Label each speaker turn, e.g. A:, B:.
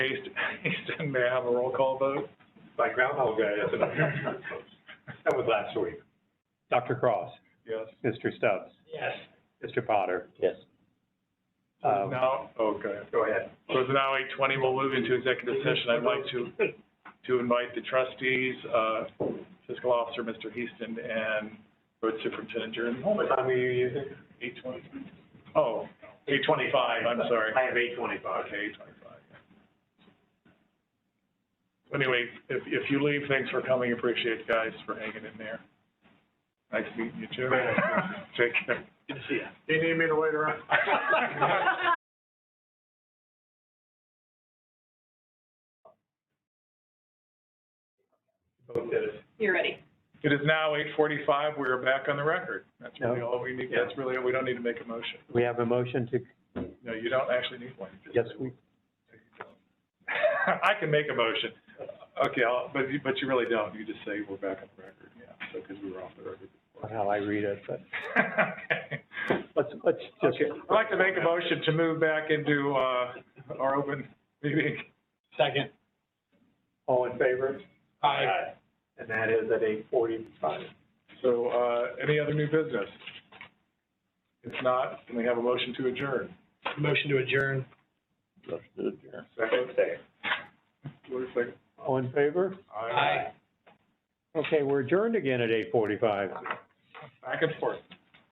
A: Hasten, Hasten, may I have a roll call vote?
B: By Groundhog Day, that's enough. That was last week.
C: Dr. Cross,
A: Yes.
C: Mr. Stubbs,
B: Yes.
C: Mr. Potter.
D: Yes.
C: Uh,
A: Now, okay.
B: Go ahead.
A: So it's now eight twenty, we'll move into executive session. I'd like to, to invite the trustees, uh, fiscal officer, Mr. Heaston, and road superintendent Jeremy Holman.
B: What time are you using?
A: Eight twenty? Oh, eight twenty-five, I'm sorry.
B: I have eight twenty-five.
A: Okay, eight twenty-five. Anyway, if, if you leave, thanks for coming. Appreciate you guys for hanging in there. Nice meeting you, Jim.
B: Very nice
A: Take care.
B: Good to see you.
A: Do you need me to wait around?
B: Both did it.
E: You're ready.
A: It is now eight forty-five, we are back on the record. That's really
C: No.
A: all we need, that's really, we don't need to make a motion.
C: We have a motion to,
A: No, you don't actually need one.
C: yes, we,
A: I can make a motion. Okay, I'll, but you, but you really don't, you just say we're back on the record, yeah, so, because we were off the record.
C: not how I read it, but
A: Okay.
C: let's, let's just,
A: Okay, I'd like to make a motion to move back into, uh, our open meeting.
B: Second.
C: all in favor?
B: Aye. And that is at eight forty-five.
A: So, uh, any other new business? If not, can we have a motion to adjourn?
B: Motion to adjourn.
D: Let's do it, Jerry.
A: Second, wait a second.
C: All in favor?
A: Aye.
C: Okay, we're adjourned again at eight forty-five.
A: Back and forth.